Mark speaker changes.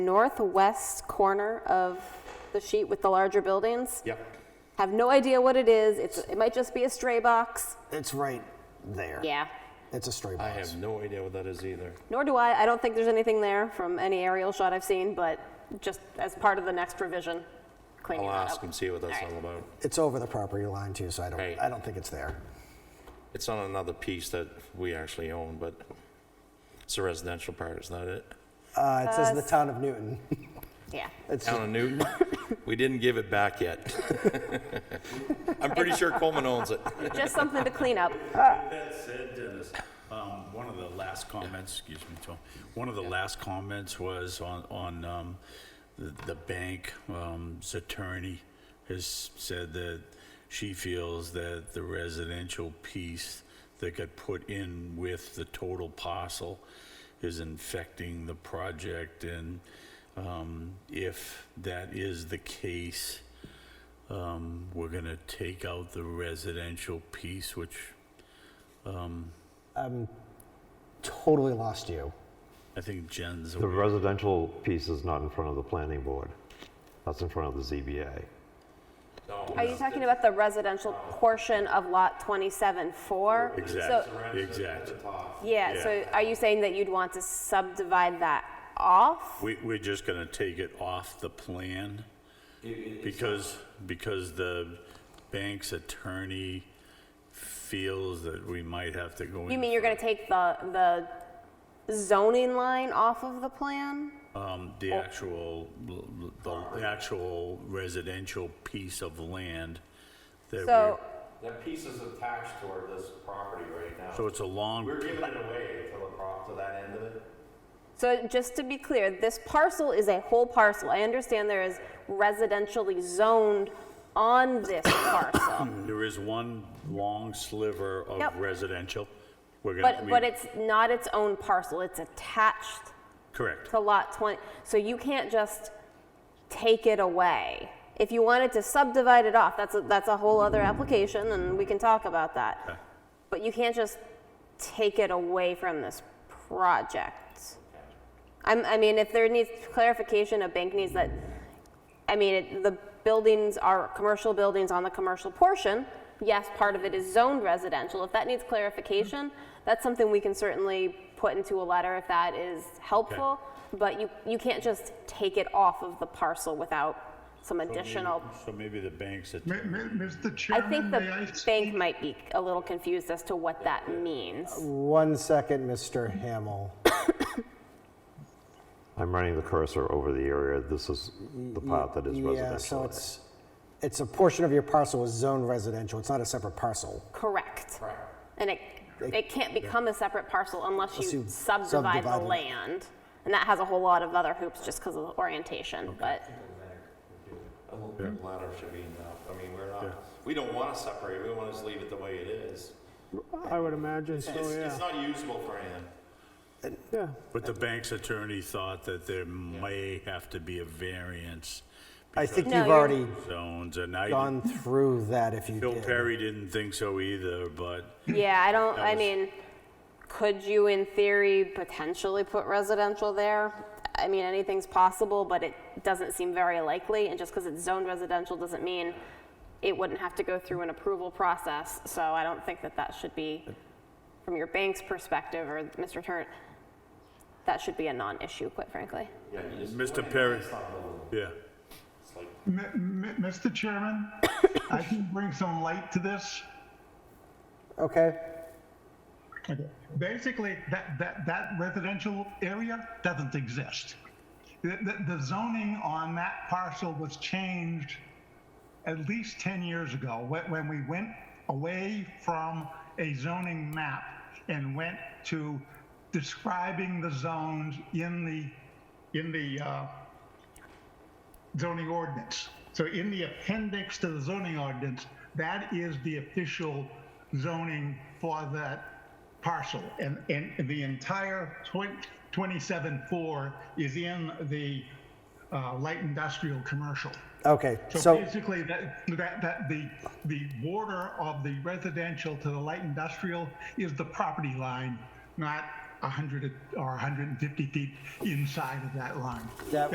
Speaker 1: northwest corner of the sheet with the larger buildings.
Speaker 2: Yep.
Speaker 1: Have no idea what it is. It's, it might just be a stray box.
Speaker 3: It's right there.
Speaker 1: Yeah.
Speaker 3: It's a stray
Speaker 2: I
Speaker 3: box.
Speaker 2: have no idea what that is either.
Speaker 1: Nor do I. I don't think there's anything there from any aerial shot I've seen, but just as part of the next revision, cleaning
Speaker 2: I'll
Speaker 1: that
Speaker 2: ask
Speaker 1: up.
Speaker 2: and see what that's
Speaker 1: All right.
Speaker 2: all about.
Speaker 3: It's over the property line too, so I don't,
Speaker 2: Right.
Speaker 3: I don't think it's there.
Speaker 2: It's on another piece that we actually own, but it's a residential part, is that it?
Speaker 3: Uh, it says the town of Newton.
Speaker 1: Yeah.
Speaker 3: It's
Speaker 2: Town of Newton? We didn't give it back yet. I'm pretty sure Coleman owns it.
Speaker 1: Just something to clean up.
Speaker 4: That said, Dennis, um, one of the last comments, excuse me, Tom, one of the last comments was on, on, um, the, the bank, um, 's attorney has said that she feels that the residential piece that got put in with the total parcel is infecting the project, and, um, if that is the case, um, we're gonna take out the residential piece, which
Speaker 3: totally lost you.
Speaker 4: I think Jen's
Speaker 5: The
Speaker 4: aware.
Speaker 5: residential piece is not in front of the planning board. That's in front of the ZBA.
Speaker 1: Are you talking about the residential portion of lot 27-4? So,
Speaker 4: Exactly, exactly.
Speaker 1: yeah, so are you saying that you'd want to subdivide that off?
Speaker 4: We, we're just gonna take it off the plan because, because the bank's attorney feels that we might have to go in.
Speaker 1: You mean you're gonna take the, the zoning line off of the plan?
Speaker 4: Um,
Speaker 1: Oh.
Speaker 4: the actual, the the actual residential piece of land that
Speaker 1: So,
Speaker 4: we're,
Speaker 6: That piece is attached toward this property right now.
Speaker 4: so it's a long,
Speaker 6: We're giving it away to the prop, to that end of it.
Speaker 1: so just to be clear, this parcel is a whole parcel. I understand there is residentially zoned on this parcel.
Speaker 4: there is one long sliver
Speaker 1: Yep.
Speaker 4: of residential. We're gonna,
Speaker 1: But,
Speaker 4: we-
Speaker 1: but it's not its own parcel, it's attached
Speaker 4: Correct.
Speaker 1: to lot 20, so you can't just take it away. If you wanted to subdivide it off, that's, a- that's a whole other application, and we can talk about that. But you can't just take it away from this project. I'm, I mean, if there needs clarification, a bank needs that, I mean, it- the buildings are commercial buildings on the commercial portion. Yes, part of it is zoned residential. If that needs clarification, that's something we can certainly put into a letter if that is helpful. But you, you can't just take it off of the parcel without some additional.
Speaker 4: So maybe the bank's
Speaker 7: Mi-
Speaker 4: attorney.
Speaker 7: mi- Mr.
Speaker 1: I
Speaker 7: Chairman,
Speaker 1: think
Speaker 7: may I
Speaker 1: the bank
Speaker 7: speak?
Speaker 1: might be a little confused as to what that means.
Speaker 3: One second, Mr. Hamel.
Speaker 5: I'm running the cursor over the area. This is the part that is
Speaker 3: Yeah, so
Speaker 5: residential.
Speaker 3: it's, it's a portion of your parcel is zoned residential. It's not a separate parcel.
Speaker 1: Correct. And it, it can't become a separate parcel unless you
Speaker 3: you
Speaker 1: subdivide the
Speaker 3: subdivide it.
Speaker 1: land. And that has a whole lot of other hoops just because of the orientation, but,
Speaker 6: A little bit ladder should be enough. I mean, we're not, we don't want to separate. We want to just leave it the way it is.
Speaker 8: I would imagine so,
Speaker 6: It's, it's
Speaker 8: yeah.
Speaker 6: not usable for anything.
Speaker 8: Yeah,
Speaker 4: But the bank's attorney thought that there may have to be a variance
Speaker 3: I think
Speaker 1: No,
Speaker 3: you've
Speaker 1: you're-
Speaker 3: already
Speaker 4: zones, and I,
Speaker 3: gone through that if you
Speaker 4: Bill
Speaker 3: did.
Speaker 4: Perry didn't think so either, but
Speaker 1: yeah, I don't, I
Speaker 4: was-
Speaker 1: mean, could you in theory potentially put residential there? I mean, anything's possible, but it doesn't seem very likely, and just because it's zoned residential doesn't mean it wouldn't have to go through an approval process, so I don't think that that should be, from your bank's perspective or Mr. Turner, that should be a non-issue, quite frankly.
Speaker 4: Mr. Perry, yeah.
Speaker 7: Mi- mi- Mr. Chairman, I can bring some light to this.
Speaker 3: Okay,
Speaker 7: Basically, that, that, that residential area doesn't exist. The, the- the zoning on that parcel was changed at least 10 years ago, when, when we went away from a zoning map and went to describing the zones in the, in the, uh, zoning ordinance. So in the appendix to the zoning ordinance, that is the official zoning for that parcel. And, and the entire 27-4 is in the uh, light industrial commercial.
Speaker 3: okay,
Speaker 7: So
Speaker 3: so,
Speaker 7: basically, that, that, that the, the border of the residential to the light industrial is the property line, not 100 or 150 feet inside of that line.
Speaker 3: That